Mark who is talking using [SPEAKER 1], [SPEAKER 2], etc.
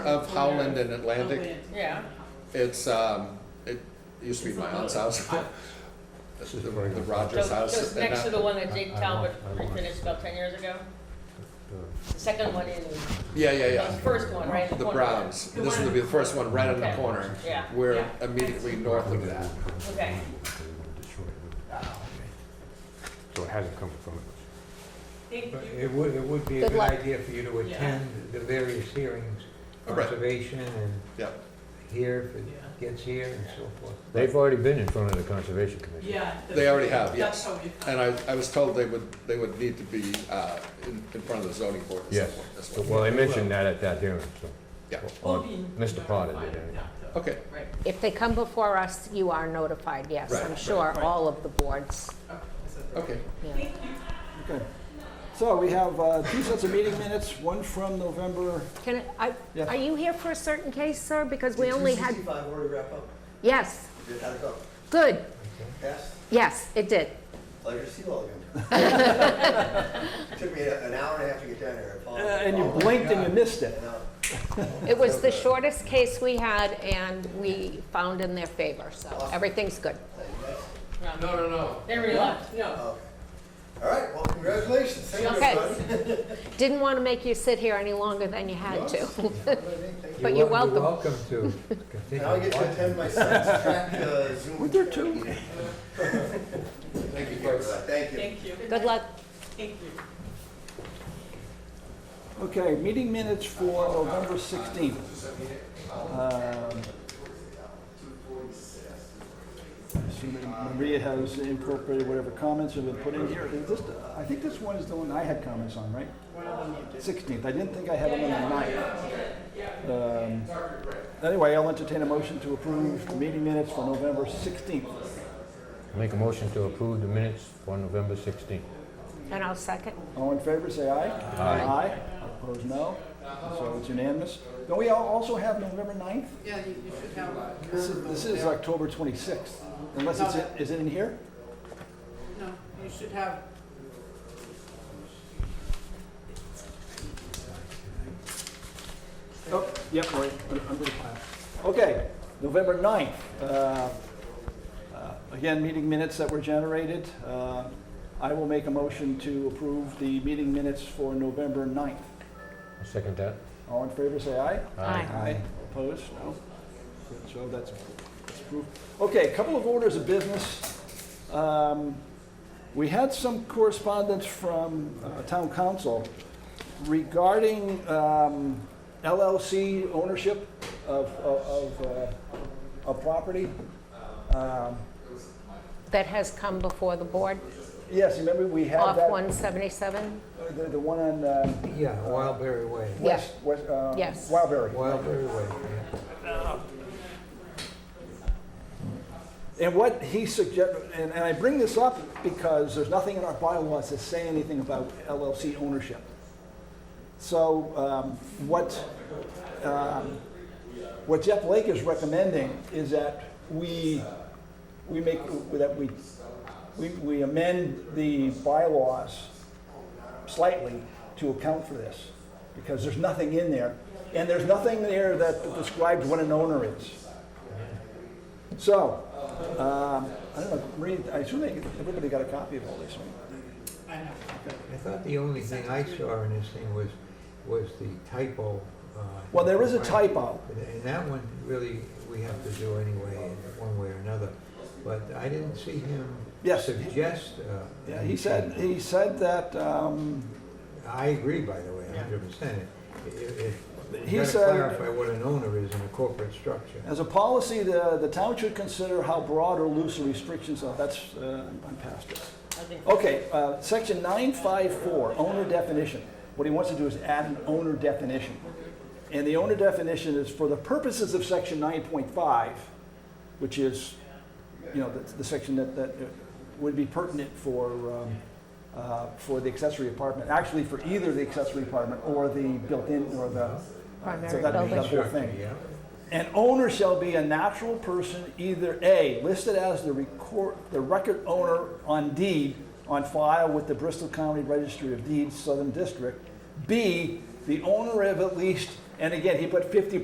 [SPEAKER 1] of Howland and Atlantic.
[SPEAKER 2] Atlantic.
[SPEAKER 3] Oh, Yeah.
[SPEAKER 1] It's, um, it used to be my aunt's house. The the Rogers
[SPEAKER 3] Just
[SPEAKER 1] house.
[SPEAKER 3] just
[SPEAKER 1] and
[SPEAKER 3] next to
[SPEAKER 1] now-
[SPEAKER 3] the one that
[SPEAKER 4] I-
[SPEAKER 3] Jake
[SPEAKER 4] I
[SPEAKER 3] Talbot
[SPEAKER 4] want- I want-
[SPEAKER 3] refinished about ten years ago. The second one in,
[SPEAKER 1] Yeah, yeah,
[SPEAKER 3] the
[SPEAKER 1] yeah.
[SPEAKER 3] first one, right in the
[SPEAKER 1] The
[SPEAKER 3] corner.
[SPEAKER 1] Browns.
[SPEAKER 2] The
[SPEAKER 1] This
[SPEAKER 2] one-
[SPEAKER 1] would be the first one, right in the
[SPEAKER 3] Okay.
[SPEAKER 1] corner.
[SPEAKER 3] Yeah,
[SPEAKER 1] We're
[SPEAKER 3] yeah.
[SPEAKER 1] immediately north of that.
[SPEAKER 3] Okay.
[SPEAKER 4] So it hasn't come from
[SPEAKER 2] Thank
[SPEAKER 5] But
[SPEAKER 2] you.
[SPEAKER 5] It would, it would be a
[SPEAKER 6] Good
[SPEAKER 5] good
[SPEAKER 6] luck.
[SPEAKER 5] idea for you to
[SPEAKER 2] Yeah.
[SPEAKER 5] attend the various hearings,
[SPEAKER 1] Oh, right.
[SPEAKER 5] conservation and
[SPEAKER 1] Yep.
[SPEAKER 5] here,
[SPEAKER 2] Yeah.
[SPEAKER 5] if it gets here and so forth.
[SPEAKER 4] They've already been in front of the Conservation Commission.
[SPEAKER 2] Yeah.
[SPEAKER 1] They already have, yes.
[SPEAKER 2] That's how we.
[SPEAKER 1] And I, I was told they would, they would need to be, uh, in, in front of the zoning board at some
[SPEAKER 4] Yes.
[SPEAKER 1] point as
[SPEAKER 4] So,
[SPEAKER 1] well.
[SPEAKER 4] Well, they mentioned that at that hearing, so.
[SPEAKER 1] Yeah.
[SPEAKER 4] Or
[SPEAKER 2] We'll be
[SPEAKER 4] Mr. Potter did,
[SPEAKER 2] notified,
[SPEAKER 4] anyway.
[SPEAKER 2] yeah,
[SPEAKER 1] Okay,
[SPEAKER 2] so- Right,
[SPEAKER 6] If they come before us, you are notified, yes,
[SPEAKER 1] Right,
[SPEAKER 6] I'm
[SPEAKER 1] right,
[SPEAKER 6] sure,
[SPEAKER 2] right.
[SPEAKER 6] all of the boards.
[SPEAKER 2] okay. so-
[SPEAKER 1] okay.
[SPEAKER 6] yeah.
[SPEAKER 2] Thank you.
[SPEAKER 7] Okay. So we have uh, two sets of meeting minutes, one from November,
[SPEAKER 6] Can I, I-
[SPEAKER 7] Yeah.
[SPEAKER 6] are you here for a certain case, sir? Because we only had,
[SPEAKER 8] 265 already wrap up?
[SPEAKER 6] yes,
[SPEAKER 8] Did that go?
[SPEAKER 6] good,
[SPEAKER 8] Yes? Oh,
[SPEAKER 6] yes, it did.
[SPEAKER 8] Pleasure to see you all again. Took me a- an hour and a half to get down here. I
[SPEAKER 7] uh,
[SPEAKER 8] apologize.
[SPEAKER 7] and you blinked and you missed it.
[SPEAKER 8] And, uh,
[SPEAKER 6] It was the shortest case we had, and we found in their favor, so everything's good.
[SPEAKER 8] that's-
[SPEAKER 3] No,
[SPEAKER 1] no, no.
[SPEAKER 3] They were left, no.
[SPEAKER 8] oh. All right, well, congratulations. Thank you,
[SPEAKER 6] Okay.
[SPEAKER 8] everybody.
[SPEAKER 6] Didn't want to make you sit here any longer than you had to.
[SPEAKER 8] Thank you.
[SPEAKER 6] But
[SPEAKER 5] wel-
[SPEAKER 6] you're welcome.
[SPEAKER 5] You're welcome to continue.
[SPEAKER 8] Now I get to attend my son's track uh, Zoom.
[SPEAKER 7] Were there two?
[SPEAKER 8] Thank you, everybody. Thank you.
[SPEAKER 2] Thank you.
[SPEAKER 6] Good luck.
[SPEAKER 2] Thank you.
[SPEAKER 7] Okay, meeting minutes for November 16th. Um, assuming Maria has incorporated whatever comments have been put in here. Is this, I think this one is the one I had comments on, right? 16th, I didn't think I had them on the 9th. Um, Anyway, I'll entertain a motion to approve the meeting minutes for November 16th.
[SPEAKER 4] Make a motion to approve the minutes for November 16th.
[SPEAKER 6] And I'll second.
[SPEAKER 7] All in favor, say aye.
[SPEAKER 4] Aye.
[SPEAKER 7] Opposed, no. So it's unanimous. Don't we al- also have November 9th?
[SPEAKER 2] Yeah, you you should have.
[SPEAKER 7] This is, this is October 26th, unless it's, in- is it in here?
[SPEAKER 2] No, you should have.
[SPEAKER 7] Oh, yep, right, un- under the pile. Okay, November 9th. uh, uh, Again, meeting minutes that were generated. Uh, I will make a motion to approve the meeting minutes for November 9th.
[SPEAKER 4] I'll Second that?
[SPEAKER 7] All in favor, say aye.
[SPEAKER 6] Aye.
[SPEAKER 7] Opposed? No? Good, So that's that's approved. Okay, a couple of orders of business. Um, We had some correspondence from uh, town council regarding um, LLC ownership of, of- of, uh, of property. Um,
[SPEAKER 6] That has come before the board,
[SPEAKER 7] Yes, remember we had
[SPEAKER 6] off
[SPEAKER 7] that,
[SPEAKER 6] 177?
[SPEAKER 7] uh, the, the one on uh,
[SPEAKER 5] Yeah, Wildberry Way.
[SPEAKER 6] Yeah.
[SPEAKER 7] West, West, uh,
[SPEAKER 6] Yes.
[SPEAKER 7] Wildberry.
[SPEAKER 5] Wildberry Way, yeah.
[SPEAKER 7] And what he suggest, and, and I bring this up because there's nothing in our bylaws that say anything about LLC ownership. So um, what, um, what Jeff Lake is recommending is that we, we make, that we, we, we amend the bylaws slightly to account for this, because there's nothing in there, and there's nothing there that describes what an owner is. So, um, I don't know, Marie, I assume they, everybody got a copy of all this, right?
[SPEAKER 2] I know.
[SPEAKER 5] I thought the only thing I saw in this thing was, was the typo. uh,
[SPEAKER 7] Well, there is a typo.
[SPEAKER 5] And- And that one, really, we have to do anyway, in one way or another. But I didn't see him
[SPEAKER 7] Yes.
[SPEAKER 5] suggest. uh,
[SPEAKER 7] Yeah, he said, he said that, um,
[SPEAKER 5] I agree, by the way, a hundred percent. It- it- it-
[SPEAKER 7] He
[SPEAKER 5] You gotta
[SPEAKER 7] said-
[SPEAKER 5] clarify what an owner is in a corporate structure.
[SPEAKER 7] as a policy, the, the town should consider how broad or loose the restrictions are, that's, uh, I'm past it.
[SPEAKER 3] I think-
[SPEAKER 7] Okay, uh, section nine five four, owner definition. What he wants to do is add an owner definition. And the owner definition is for the purposes of section nine point five, which is, you know, the, the section that, that would be pertinent for, um, uh, for the accessory apartment, actually for either the accessory apartment or the built-in or the. so
[SPEAKER 6] Primary
[SPEAKER 7] that'd be the
[SPEAKER 6] building.
[SPEAKER 7] whole thing.
[SPEAKER 5] Yeah.
[SPEAKER 7] An owner shall be a natural person, either A, listed as the record, the record owner on deed on file with the Bristol County Registry of Deeds, Southern District. B, the owner of at least And again, he put fifty